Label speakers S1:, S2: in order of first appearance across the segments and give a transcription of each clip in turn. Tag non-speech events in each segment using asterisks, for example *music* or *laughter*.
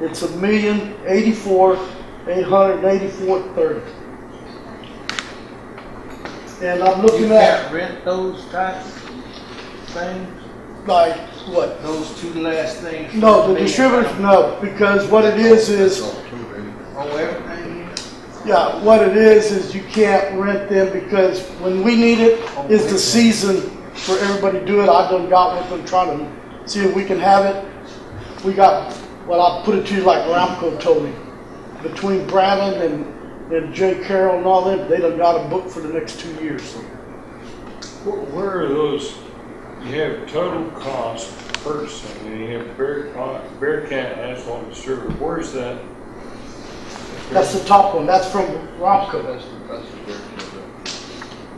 S1: It's a million eighty-four, eight hundred and eighty-four thirty. And I'm
S2: You
S1: looking at
S2: can't rent those type things,
S1: like, what?
S2: those two last things?
S1: No, the distributors, no, because what it is, is,
S2: Oh, everything in it?
S1: yeah, what it is, is you can't rent them because when we need it, it's the season for everybody to do it. I done got with them trying to see if we can have it. We got, well, I'll put it to you like Ramco told me, between Bradley and, and Jay Carroll and all them, they done got a book for the next two years.
S3: Where- Where are those, you have total cost purchasing, and you have Bear, Bearcat asphalt distributor, where's that?
S1: That's the top one, that's from Ramco.
S2: That's the, that's the distributor.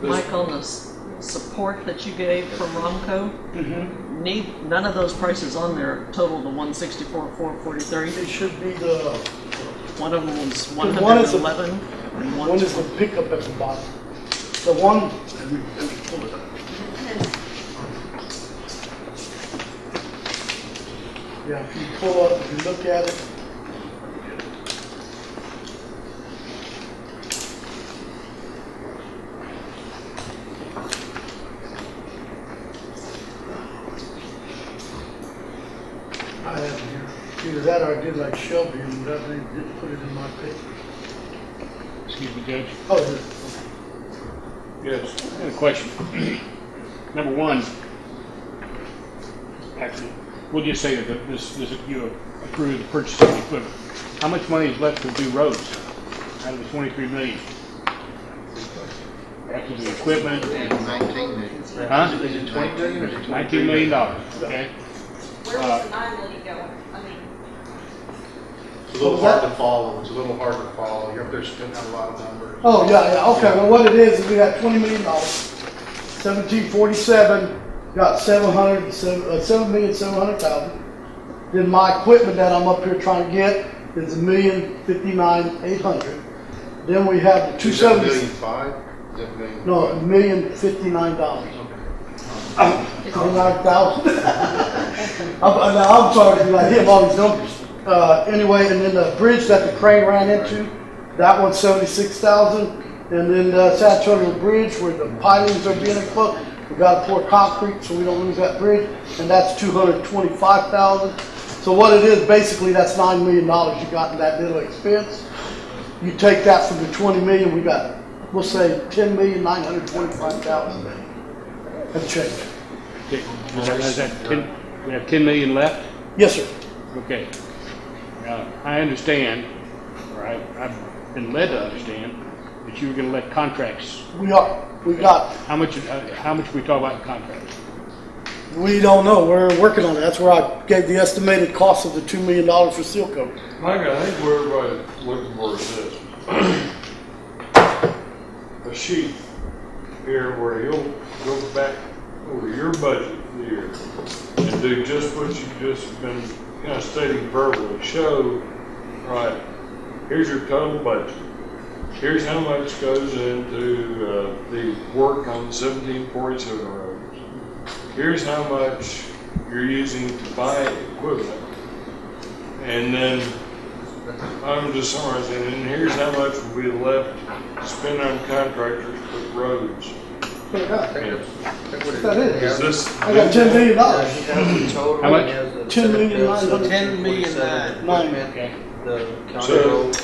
S3: This-
S4: Michael, the s- support that you gave from Romco,
S1: Mhm.
S4: need, none of those prices on there total to one sixty-four, four
S1: It
S4: forty-three.
S1: should be the,
S4: One of them was one
S1: The one
S4: hundred
S1: is
S4: and
S1: the-
S4: eleven, and
S1: one
S4: one,
S1: is the pickup at the bottom. The one, yeah, if you pull up, if you look at it, I have it here. Either that or I did like Shelby and that they did put it in my paper.
S5: Excuse me, Judge.
S1: Oh, it is.
S3: Yes,
S5: I have a question. *clears throat* Number one, actually, we'll just say that this, this, you approve the purchase of the equipment. How much money is left to do roads out of the twenty-three million? After the equipment,
S2: And nineteen million.
S5: huh?
S2: Is it twenty million or is it twenty-three?
S5: Nineteen million dollars, okay?
S6: Where was the nine million going? I mean,
S7: It's a little hard to follow, it's a little hard to follow, you're up there spitting out a lot of numbers.
S1: Oh, yeah, yeah, okay, well, what it is, is we got twenty million dollars, seventeen forty-seven, got seven hundred, seven, uh, seven million, seven hundred thousand. Then my equipment that I'm up here trying to get is a million fifty-nine, eight hundred. Then we have the two
S7: Is that a million
S1: seventy,
S7: five? Is that a million?
S1: no, a million fifty-nine dollars,
S4: it's-
S1: twenty-nine thousand. *laughs* I'm, I'm I'm sorry, to like, hit all these numbers. Uh, anyway, and then the bridge that the crane ran into, that one's seventy-six thousand. And then, uh, South Charter Bridge where the pilings are being put, we gotta pour concrete so we don't lose that bridge, and that's two hundred twenty-five thousand. So what it is, basically, that's nine million dollars you got in that little expense. You take that from the twenty million, we got, we'll say ten million nine hundred twenty-five thousand. And change.
S5: Okay, Is that- is that ten, we have ten million left?
S1: Yes, sir.
S5: Okay. Now, I understand, or I, I've been led to understand, that you were gonna let contracts,
S1: We are, we got,
S5: how much, uh, how much we talk about in contracts?
S1: we don't know, we're working on it, that's where I gave the estimated cost of the two million dollars for seal coat.
S3: Michael, I think where everybody's looking for is this. A sheet here where he'll go back over your budget here and do just what you just been kind of stating verbally, show, right, here's your total budget. Here's how much goes into, uh, the work on seventeen forty-seven roads. Here's how much you're using to buy equipment. And then I'm just summarizing, and here's how much will be left to spend on contractors for roads. Yes.
S1: That
S3: Is
S1: is.
S3: this?
S1: I got ten million dollars.
S5: How much?
S1: Ten million nine hundred.
S2: Ten million nine.
S5: Okay.
S2: The county
S3: So,
S2: road.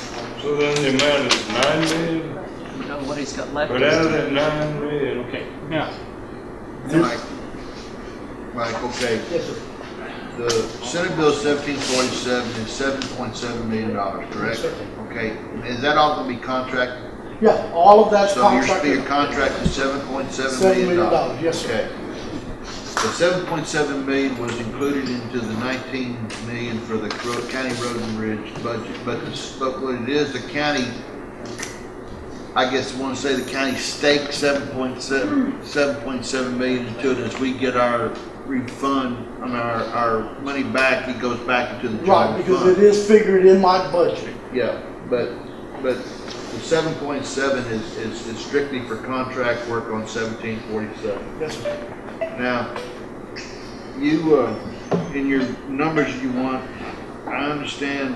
S3: so then the amount is nine million,
S4: you know, what he's got left
S3: but out of
S4: is
S3: that nine million,
S5: Okay, now,
S2: Mike, Mike, okay,
S1: Yes, sir.
S2: the Senate Bill seventeen forty-seven is seven point seven million dollars, correct?
S1: Yes,
S2: Okay, is that all gonna be contracted?
S1: Yeah, all of that's
S2: So your, your
S1: contracted.
S2: contract is seven point seven
S1: Seven
S2: million
S1: million
S2: dollars?
S1: dollars, yes, sir.
S2: Okay. The seven point seven million was included into the nineteen million for the cro- county road and bridge budget, but, the- but what it is, the county, I guess you wanna say the county staked seven point seven, seven point seven million into it, as we get our refund, I mean, our, our money back, it goes back into the general
S1: Right,
S2: fund.
S1: because it is figured in my budget.
S2: Yeah, but, but the seven point seven is, is is strictly for contract work on seventeen forty-seven.
S1: Yes, sir.
S2: Now, you, uh, in your numbers you want, I understand